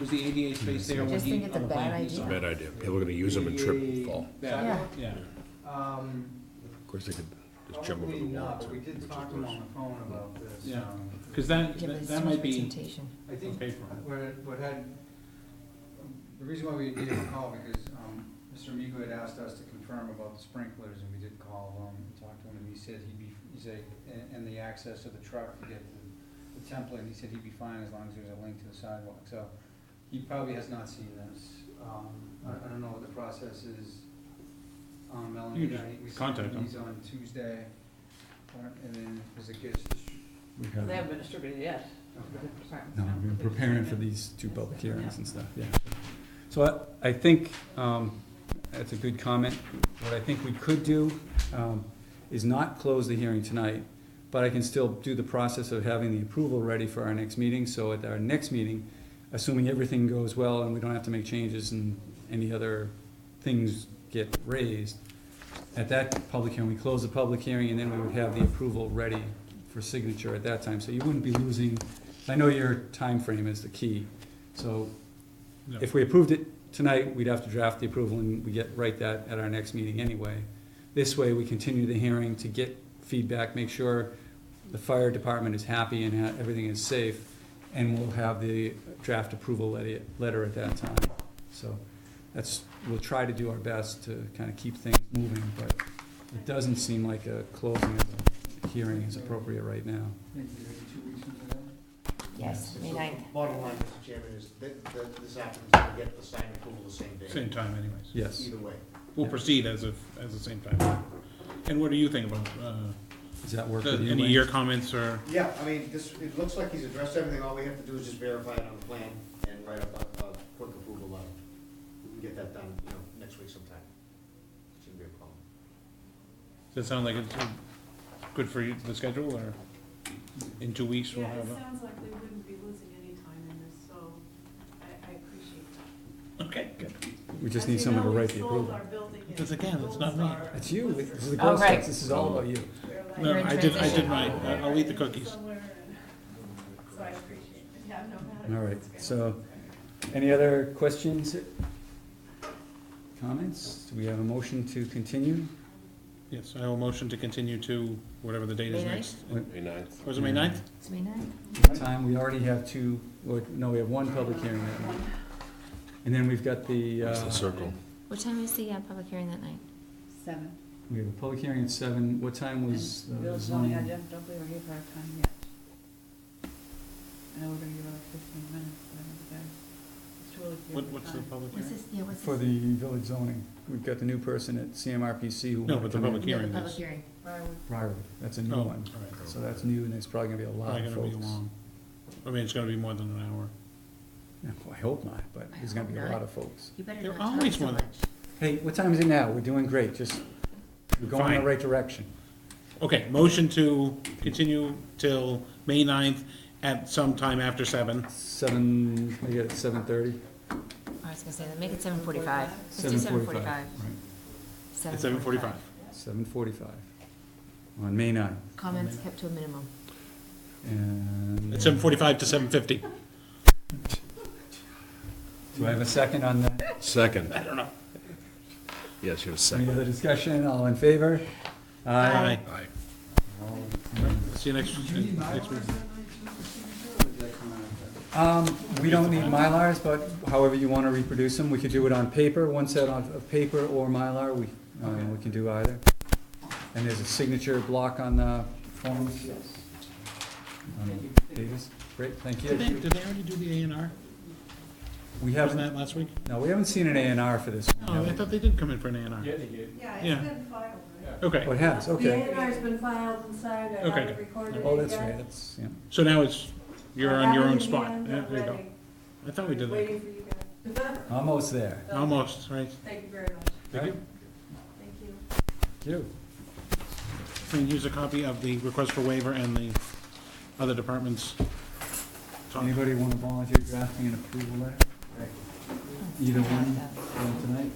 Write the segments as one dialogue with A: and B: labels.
A: Was the ADA space there when
B: just
A: he,
B: think it's a
A: on the
B: bad
A: plan he
B: idea.
A: saw?
B: It's a
C: Bad idea. People are gonna use them and trip and fall.
A: That, yeah.
D: Um,
C: Of course, they could just jump over
D: probably
C: the wall
D: not,
C: too,
D: but we
C: which
D: did
C: is
D: talk to him
C: worse.
D: on the phone about this.
A: Yeah.
D: um,
A: Cause that,
B: Yeah, but
A: that
B: it's
A: that
B: too much
A: might be,
B: representation.
D: I think
A: Okay for him.
D: what, had- what had, the reason why we gave him a call, because, um, Mr. Amico had asked us to confirm about the sprinklers, and we did call him, and talked to him, and he said he'd be, he said, and, and the access to the truck to get the, the template, he said he'd be fine as long as there's a link to the sidewalk, so he probably has not seen this. Um, I, I don't know what the process is, um, Melanie,
A: You
D: and
A: can
D: I,
A: just
D: we said
A: contact him.
D: he's on Tuesday, uh, and then, because it gets,
E: We
F: They
E: have,
F: haven't been distributed yet.
D: okay.
E: no, we've been preparing for
F: the.
E: these two public hearings and stuff, yeah. So I, I think, um, that's a good comment. What I think we could do, um, is not close the hearing tonight, but I can still do the process of having the approval ready for our next meeting, so at our next meeting, assuming everything goes well and we don't have to make changes and any other things get raised, at that public hearing, we close the public hearing and then we would have the approval ready for signature at that time, so you wouldn't be losing, I know your time frame is the key, so
A: Yeah.
E: if we approved it tonight, we'd have to draft the approval and we get, write that at our next meeting anyway. This way, we continue the hearing to get feedback, make sure the fire department is happy and ha- everything is safe, and we'll have the draft approval letter, letter at that time. So that's, we'll try to do our best to kind of keep things moving, but it doesn't seem like a closing of the hearing is appropriate right now.
D: Maybe two weeks from today?
B: Yes, May
G: So,
B: ninth.
G: Bottom line, Mr. Chairman, is that, that this applicant's gonna get the signed approval the same day,
A: same time anyways.
E: Yes.
G: either way.
A: We'll proceed as if, as the same time. And what do you think about, uh,
E: Does that work
A: the-
E: with you?
A: any
E: Wayne?
A: of your comments or?
G: Yeah, I mean, this, it looks like he's addressed everything, all we have to do is just verify it on the plan and write up a, a quick approval letter. We can get that done, you know, next week sometime. Shouldn't be a problem.
A: Does it sound like it's uh, good for you, the schedule, or in two weeks we'll
F: Yeah, it
A: have
F: sounds like we wouldn't be losing any time in this, so I, I appreciate that.
A: a? Okay, good.
E: We just
F: As
E: need
F: you
E: someone to
F: know, we
E: write the
F: sold
E: approval.
F: our building in
A: Because again, it's not
F: Gold
A: me.
F: Star
E: It's you, this is the
B: Oh,
E: Girl
B: right.
E: Scouts, this is all about you.
F: We're like-
A: No,
B: You're in
A: I did, I did
B: transition.
A: mine. I- I'll eat the cookies.
F: Somewhere, and- So I appreciate it, yeah, no matter.
E: All right,
F: It's good.
E: so, any other questions? Comments? Do we have a motion to continue?
A: Yes, I will motion to continue to whatever the date is
B: May
A: next.
C: May ninth.
A: Was it May ninth?
B: It's May ninth.
E: Time, we already have two, or, no, we have one public hearing that night. And then we've got the,
C: It's the
E: uh,
C: circle.
B: What time is the uh, public hearing that night?
H: Seven.
E: we have a public hearing at seven, what time was uh,
H: And
E: the
H: Bill's telling me I
E: zoning?
H: don't, don't believe we're here for our time yet. I know we're gonna give about fifteen minutes, but I don't think I, it's too early for
A: What,
H: you
A: what's
H: to
A: the
H: time.
A: public
B: What's
A: hearing?
B: this, yeah, what's this?
E: For the village zoning, we've got the new person at CMRPC who.
A: No,
E: wanted
A: but the
E: to come in.
A: public
B: Yeah, the
A: hearing
B: public
A: is.
B: hearing.
H: Briarwood.
E: Briarwood, that's a new
A: Oh, all
E: one,
A: right.
E: so that's new, and there's probably gonna be a lot
A: Probably
E: of
A: gonna be
E: folks.
A: long. I mean, it's gonna be more than an hour.
E: No, I hope not, but
B: I
E: there's gonna
B: hope
E: be a
B: not.
E: lot of folks.
B: You better
A: They're
B: not talk
A: always
B: so
A: one.
B: much.
E: Hey, what time is it now? We're doing great, just, we're going in
A: Fine.
E: the right direction.
A: Okay, motion to continue till May ninth at some time after seven.
E: Seven, I get it, seven thirty?
B: I was gonna say, make it seven forty-five. Let's do seven
E: Seven
B: forty-five.
E: forty-five.
A: At seven forty-five.
E: Seven forty-five, on May ninth,
B: Comments kept to a minimum.
E: and.
A: At seven forty-five to seven fifty.
E: Do I have a second on that?
C: Second. I don't know. Yes, you have a
E: Any
C: second.
E: other discussion, all in favor? Aye.
C: Aye.
A: See you next,
D: Do you need my
A: next
D: word
A: week.
D: on that night, too, Mr. Chairman, or did that come out after?
E: Um, we don't need Mylars, but however you wanna reproduce them, we could do it on paper, one set on, of paper or Mylar, we, uh, we can do either. And there's a signature block on the forms. Um, Davis, great, thank
A: Did they,
E: you.
A: did they already do the A and R?
E: We
A: Wasn't
E: haven't,
A: that last week?
E: no, we haven't seen an A and R for this. one,
A: Oh,
E: have
A: I
E: we?
A: thought they did come in for an A and R.
D: Yeah, they did.
F: Yeah,
A: Yeah.
F: it's been filed, right?
E: Oh,
A: Okay,
E: it has, okay.
F: The A has been filed and signed, I
A: Okay,
F: have it
A: good.
F: recorded.
E: Oh, that's
F: yeah.
E: right, that's, yeah.
A: so now it's, you're
F: I
A: on
F: have
A: your
F: it
A: own
F: in
A: spot.
F: hand,
A: Yeah,
F: I'm
A: there you go.
F: ready.
A: I thought we did that.
F: Waiting for you guys.
E: Almost there.
A: Almost, right?
F: Thank you very much,
A: Thank you.
F: thank you.
E: Thank you.
A: And here's a copy of the request for waiver and the other departments. talk.
E: Anybody want to volunteer drafting an approval letter? Either one, one tonight?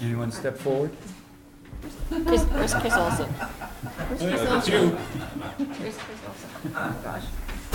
E: Anyone step forward?
B: Chris, where's Chris Olson? Where's Chris Olson?
A: you.
B: Where's Chris Olson? Oh, gosh.